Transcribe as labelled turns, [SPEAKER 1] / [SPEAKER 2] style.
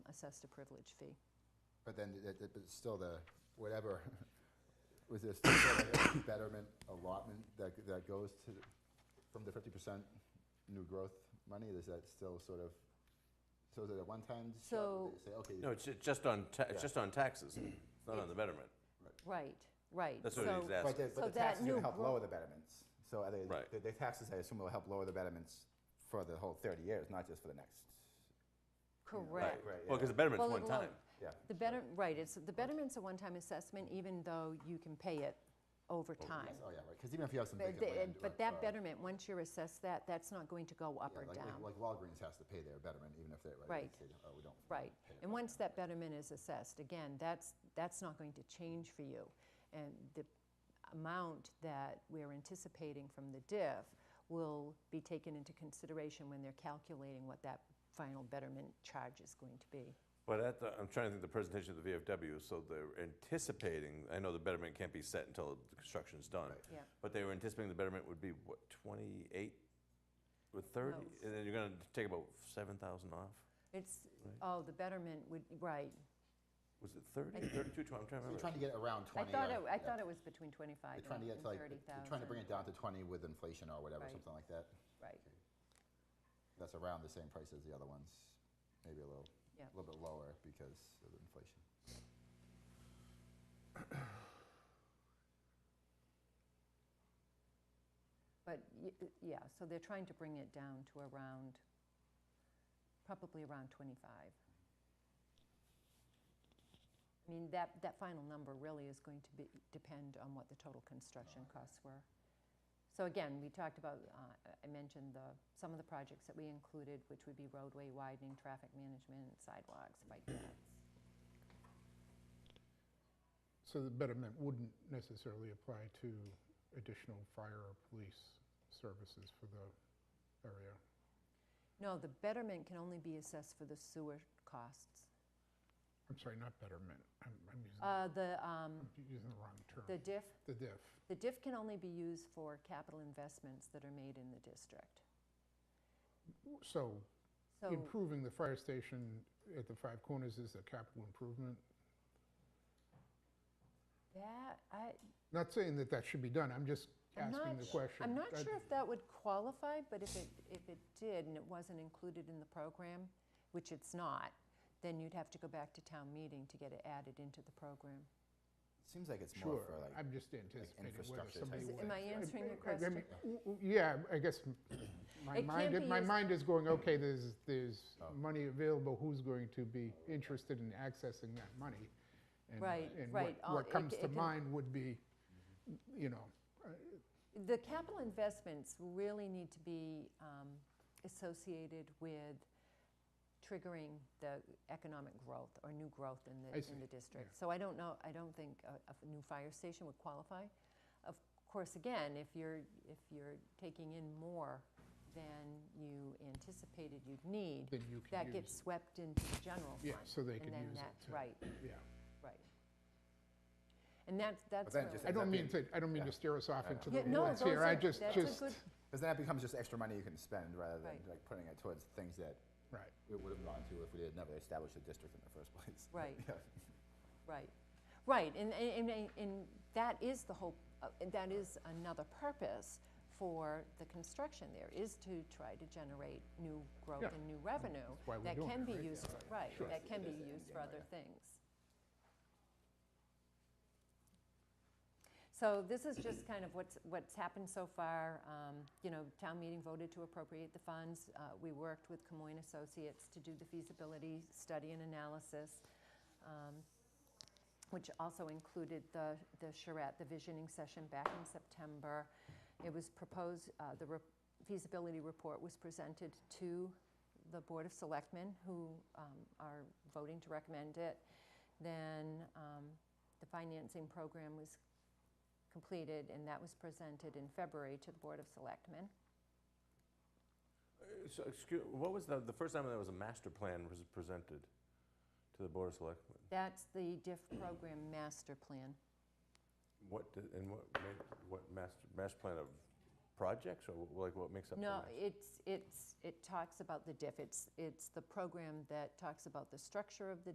[SPEAKER 1] access to privilege fee.
[SPEAKER 2] But then, th- th- but still the, whatever, was there still sort of like a betterment allotment that, g- that goes to, the- from the fifty percent new growth money? Is that still sort of, so is it a one-time shot?
[SPEAKER 1] So-
[SPEAKER 2] They Say, okay.
[SPEAKER 3] No, it's ju- just on, ta-
[SPEAKER 2] Yeah.
[SPEAKER 3] it's just on taxes, it's not on the betterment.
[SPEAKER 1] Right, right.
[SPEAKER 3] That's what he's
[SPEAKER 1] So-
[SPEAKER 2] But
[SPEAKER 3] asking.
[SPEAKER 2] the,
[SPEAKER 1] So
[SPEAKER 2] but the
[SPEAKER 1] that
[SPEAKER 2] taxes are
[SPEAKER 1] new
[SPEAKER 2] gonna help
[SPEAKER 1] gro-
[SPEAKER 2] lower the betterments. So are they,
[SPEAKER 3] Right.
[SPEAKER 2] the- the taxes, I assume, will help lower the betterments for the whole thirty years, not just for the next.
[SPEAKER 1] Correct.
[SPEAKER 2] Right,
[SPEAKER 3] Well,
[SPEAKER 2] yeah,
[SPEAKER 3] because the betterment's
[SPEAKER 1] Well,
[SPEAKER 3] one
[SPEAKER 1] it
[SPEAKER 3] time.
[SPEAKER 1] lo-
[SPEAKER 2] yeah.
[SPEAKER 1] The better, right, it's, the betterment's a one-time assessment, even though you can pay it over time.
[SPEAKER 2] Oh, yeah, right, because even if you have some
[SPEAKER 1] But
[SPEAKER 2] vacant
[SPEAKER 1] the-
[SPEAKER 2] land.
[SPEAKER 1] But
[SPEAKER 2] like, uh,
[SPEAKER 1] that betterment, once you're assessed that, that's not going to go up
[SPEAKER 2] yeah,
[SPEAKER 1] or
[SPEAKER 2] like- like-
[SPEAKER 1] down.
[SPEAKER 2] Like Walgreens has to pay their betterment, even if they're,
[SPEAKER 1] Right.
[SPEAKER 2] right, they say, oh, we don't.
[SPEAKER 1] Right.
[SPEAKER 2] pay it
[SPEAKER 1] And
[SPEAKER 2] right
[SPEAKER 1] once
[SPEAKER 2] now."
[SPEAKER 1] that betterment is assessed, again, that's, that's not going to change for you. And the amount that we're anticipating from the diff will be taken into consideration when they're calculating what that final betterment charge is going to be.
[SPEAKER 3] But at the, uh, I'm trying to think of the presentation of the VFW, so they're anticipating, I know the betterment can't be set until the construction's done.
[SPEAKER 2] Right.
[SPEAKER 1] Yeah.
[SPEAKER 3] But they were anticipating the betterment would be, what, 28 or 30?
[SPEAKER 1] No.
[SPEAKER 3] And then you're going to take about 7,000 off?
[SPEAKER 1] It's,
[SPEAKER 3] Right.
[SPEAKER 1] oh, the betterment would, right.
[SPEAKER 3] Was it 30, 32, I'm trying to
[SPEAKER 2] So you're
[SPEAKER 3] remember.
[SPEAKER 2] trying to get around
[SPEAKER 1] I
[SPEAKER 2] twenty.
[SPEAKER 1] thought,
[SPEAKER 2] uh,
[SPEAKER 1] it- I
[SPEAKER 2] yeah.
[SPEAKER 1] thought it was between 25 and
[SPEAKER 2] You're trying to get to like, you're
[SPEAKER 1] 30,000.
[SPEAKER 2] trying to bring it down to twenty with inflation or whatever,
[SPEAKER 1] Right.
[SPEAKER 2] something like that.
[SPEAKER 1] Right,
[SPEAKER 2] That's around the same price as the other ones, maybe a little,
[SPEAKER 1] Yeah.
[SPEAKER 2] a little bit lower because of inflation.
[SPEAKER 1] but, y- yeah, so they're trying to bring it down to around, probably around 25. I mean, that, that final number really is going to be, depend on what the total construction costs were. So again, we talked about, uh, I mentioned the, some of the projects that we included, which would be roadway widening, traffic management, sidewalks, bike paths.
[SPEAKER 4] So the betterment wouldn't necessarily apply to additional fire or police services for the area?
[SPEAKER 1] No, the betterment can only be assessed for the sewer costs.
[SPEAKER 4] I'm sorry, not betterment, I'm, I'm using,
[SPEAKER 1] Uh, The, um,
[SPEAKER 4] I'm using the wrong
[SPEAKER 1] the
[SPEAKER 4] term.
[SPEAKER 1] diff,
[SPEAKER 4] The diff,
[SPEAKER 1] the diff can only be used for capital investments that are made in the district.
[SPEAKER 4] so
[SPEAKER 1] So,
[SPEAKER 4] improving the fire station at the Five Corners is a capital improvement?
[SPEAKER 1] that, I,
[SPEAKER 4] Not saying that that should be done, I'm just
[SPEAKER 1] I'm
[SPEAKER 4] asking
[SPEAKER 1] not
[SPEAKER 4] the
[SPEAKER 1] su-
[SPEAKER 4] question. Uh,
[SPEAKER 1] I'm not
[SPEAKER 4] That-
[SPEAKER 1] sure if that would qualify, but if it, if it did and it wasn't included in the program, which it's not, then you'd have to go back to town meeting to get it added into the program.
[SPEAKER 2] Seems like it's more
[SPEAKER 4] Sure,
[SPEAKER 2] for like.
[SPEAKER 4] I'm just anticipating whether
[SPEAKER 2] infrastructure
[SPEAKER 4] somebody
[SPEAKER 1] Is-
[SPEAKER 2] type It
[SPEAKER 4] would.
[SPEAKER 1] Am I answering your
[SPEAKER 4] I- I mean,
[SPEAKER 1] question?
[SPEAKER 4] w- w- Yeah, I guess m- my
[SPEAKER 1] It
[SPEAKER 4] mind,
[SPEAKER 1] can't be
[SPEAKER 4] my
[SPEAKER 1] used-
[SPEAKER 4] mind is going, okay, there's, there's
[SPEAKER 2] Oh.
[SPEAKER 4] money available, who's going to be interested in accessing that money? And-
[SPEAKER 1] Right,
[SPEAKER 4] and
[SPEAKER 1] right,
[SPEAKER 4] what-
[SPEAKER 1] all-
[SPEAKER 4] what
[SPEAKER 1] it
[SPEAKER 4] comes
[SPEAKER 1] ca- it
[SPEAKER 4] to
[SPEAKER 1] can-
[SPEAKER 4] mind would be, you know,
[SPEAKER 1] The capital investments really need to be um, associated with triggering the economic growth or new growth in the,
[SPEAKER 4] I see,
[SPEAKER 1] in the district. So I don't know, I don't think a, a f- new fire station would qualify. Of course, again, if you're, if you're taking in more than you anticipated you'd need,
[SPEAKER 4] then you can
[SPEAKER 1] that gets
[SPEAKER 4] use,
[SPEAKER 1] swept into the general fund.
[SPEAKER 4] yeah, so they
[SPEAKER 1] And
[SPEAKER 4] can
[SPEAKER 1] then
[SPEAKER 4] use
[SPEAKER 1] that's,
[SPEAKER 4] it. to-
[SPEAKER 1] right,
[SPEAKER 4] Yeah.
[SPEAKER 1] right. And that's, that's
[SPEAKER 2] then
[SPEAKER 1] really.
[SPEAKER 2] just
[SPEAKER 4] I
[SPEAKER 2] that
[SPEAKER 4] don't mean
[SPEAKER 2] being-
[SPEAKER 4] to, I don't mean
[SPEAKER 2] yeah.
[SPEAKER 4] to steer us off into
[SPEAKER 1] Yeah,
[SPEAKER 4] the
[SPEAKER 1] no,
[SPEAKER 4] woods
[SPEAKER 1] those
[SPEAKER 4] here, I
[SPEAKER 1] are-
[SPEAKER 4] just,
[SPEAKER 1] that's a
[SPEAKER 4] just,
[SPEAKER 1] good-
[SPEAKER 2] Because then it becomes just extra money you can spend rather than
[SPEAKER 1] Right.
[SPEAKER 2] like putting it towards things that
[SPEAKER 4] right.
[SPEAKER 2] we would have gone to if we had never established a district in the first place.
[SPEAKER 1] Right.
[SPEAKER 2] Yeah.
[SPEAKER 1] Right, right, and, and, and- and that is the whole, uh, and that is another purpose for the construction there, is to try to generate new growth
[SPEAKER 4] Yeah.
[SPEAKER 1] and new revenue.
[SPEAKER 4] That's why we're doing
[SPEAKER 1] That can
[SPEAKER 4] it,
[SPEAKER 1] be
[SPEAKER 4] right?
[SPEAKER 1] used, for- right,
[SPEAKER 2] Sure.
[SPEAKER 1] that can
[SPEAKER 2] It
[SPEAKER 1] be
[SPEAKER 2] is the end
[SPEAKER 1] used
[SPEAKER 2] game,
[SPEAKER 1] for
[SPEAKER 2] right,
[SPEAKER 1] other
[SPEAKER 2] yeah.
[SPEAKER 1] things. So this is just kind of what's, what's happened so far. Um, You know, town meeting voted to appropriate the funds. Uh, We worked with Camoin Associates to do the feasibility study and analysis, um, which also included the, the charrette, the visioning session back in September. It was proposed, uh, the re- feasibility report was presented to the Board of Selectmen, who um, are voting to recommend it. Then um, the financing program was completed, and that was presented in February to the Board of Selectmen.
[SPEAKER 3] Uh, So, excuse, what was the, the first time there was a master plan was presented to the Board of Selectmen?
[SPEAKER 1] That's the DIF program master plan.
[SPEAKER 3] What, did- and what, made- what master, master plan of projects, or wh- like what makes up the
[SPEAKER 1] No,
[SPEAKER 3] match?
[SPEAKER 1] it's, it's, it talks about the diff. It's, it's the program that talks about the structure of the